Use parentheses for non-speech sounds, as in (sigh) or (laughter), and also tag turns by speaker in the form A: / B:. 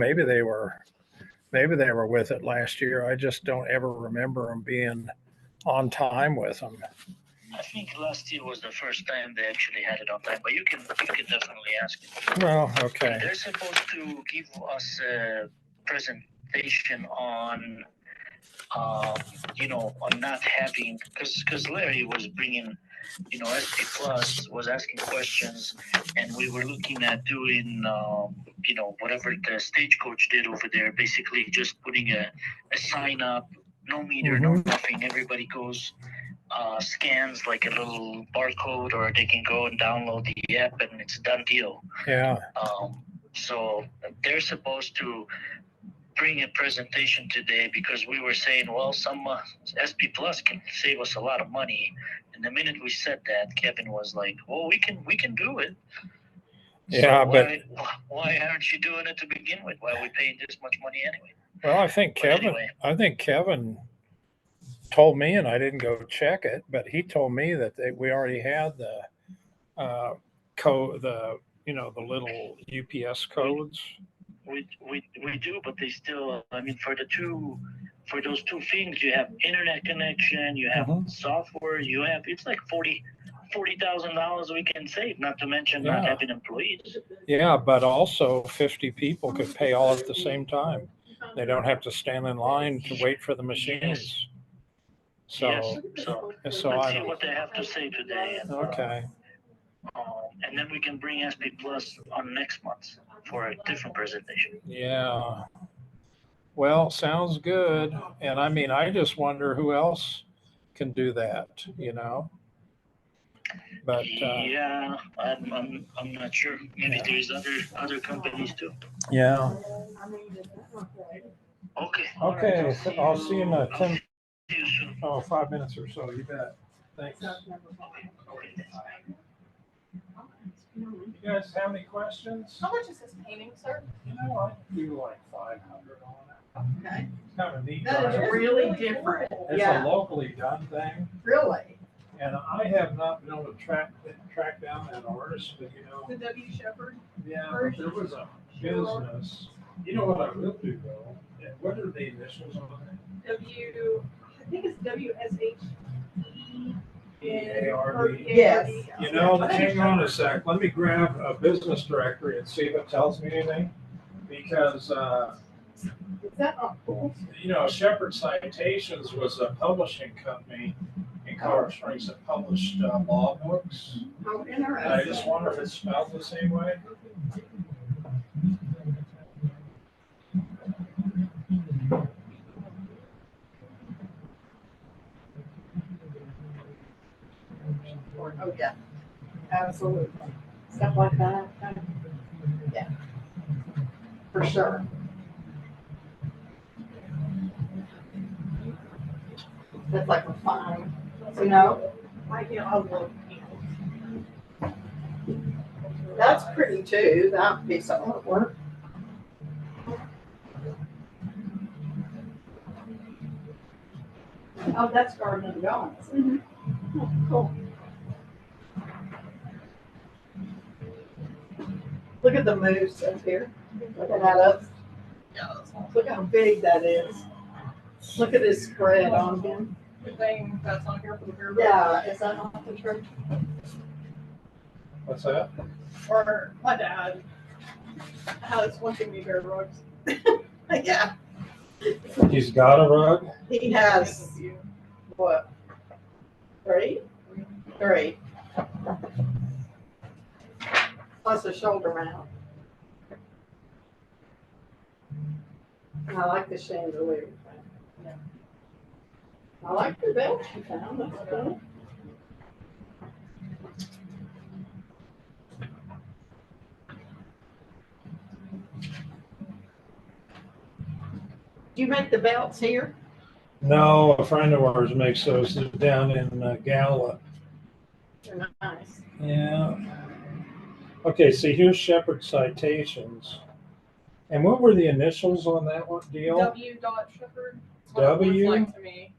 A: maybe they were, maybe they were with it last year. I just don't ever remember them being on time with them.
B: I think last year was the first time they actually had it on time, but you can, you can definitely ask.
A: Well, okay.
B: They're supposed to give us a presentation on, um, you know, on not having, because, because Larry was bringing, you know, SP Plus was asking questions, and we were looking at doing, um, you know, whatever the stagecoach did over there, basically just putting a, a sign up, no meter, no nothing, everybody goes, uh, scans like a little barcode, or they can go and download the app, and it's a done deal.
A: Yeah.
B: Um, so they're supposed to bring a presentation today because we were saying, well, some uh, SP Plus can save us a lot of money. And the minute we said that, Kevin was like, well, we can we can do it.
A: Yeah, but-
B: why, wh- why aren't you doing it to begin with? Why are we paying this much money anyway?
A: Well, I think
B: But
A: Kevin,
B: anyway.
A: I think Kevin told me, and I didn't go check it, but he told me that they, we already had the uh, code, the you know the little UPS codes.
B: We, we we do, but they still. I mean, for the two, for those two things, you have internet connection, you have
A: Mhm.
B: software, you have. It's like forty. Forty thousand dollars we can save, not to mention not
A: Yeah.
B: having employees.
A: Yeah, but also fifty people could pay all at the same time. They don't have to stand in line to wait for the machines.
B: yes,
A: So,
B: so
A: so
B: let's see
A: I
B: what they have to say today, and, uh,
A: okay.
B: um, and then we can bring SP Plus on next month for a different presentation.
A: Yeah. Well, sounds good. And I mean, I just wonder who else can do that, you know? But, uh,
B: yeah, I'm, I'm I'm not sure. Maybe
A: Yeah.
B: there's other other companies too.
A: yeah.
B: Okay. all right,
A: Okay, so I'll see you in uh,
B: I'll
A: ten,
B: see you soon.
A: oh, five minutes or so. You bet. Thanks. You guys have any questions?
C: How much is this painting, sir?
A: You know, I do like five hundred on
C: Okay.
A: it. It's kind of neat.
C: That is
A: right?
C: really different.
A: It's a
C: Yeah,
A: locally done thing.
C: really.
A: And I have not been able to track, track down that artist, but you know,
C: The W Shepherd.
A: Yeah, but there was a business. You know what I will do though? Yeah, What are the initials on
C: W, I think it's W S H E.
A: it? E A R D?
C: Yes.
A: You know, hang on a sec. Let me grab a business directory and see if it tells me anything. Because, uh,
C: Is that a bull?
A: you know, Shepherd Citations was a publishing company in Colorado Springs that published uh, law books.
C: How
A: And I just
C: interesting.
A: wonder if it's spelled the same way.
C: Oh, yeah. Absolutely. Stuff like that. Yeah. For sure. That's like a fine. So no, I get a little. That's pretty too. That piece of artwork. Oh, that's Garden of Gods. Oh, Cool. Look at the moose up here. Look at that up. Look how big that is. Look at his spread on him.
D: Good thing that's on here for the beer.
C: Yeah, is that off the church?
A: What's that?
D: Or my dad has one thing we bear rugs.
C: (laughs) Yeah,
A: He's got a rug?
C: he has, what, three? Three. Plus a shoulder mount. And I like the chandelier. thing. I like the belt you found, that's good. Do you make the belts here?
A: No, a friend of ours makes those They're down in uh, Gallup.
C: They're nice.
A: Yeah. Okay, so here's Shepherd Citations. And what were the initials on that one deal?
D: W dot Shepherd. That's what it looks
A: W?
D: Like to me.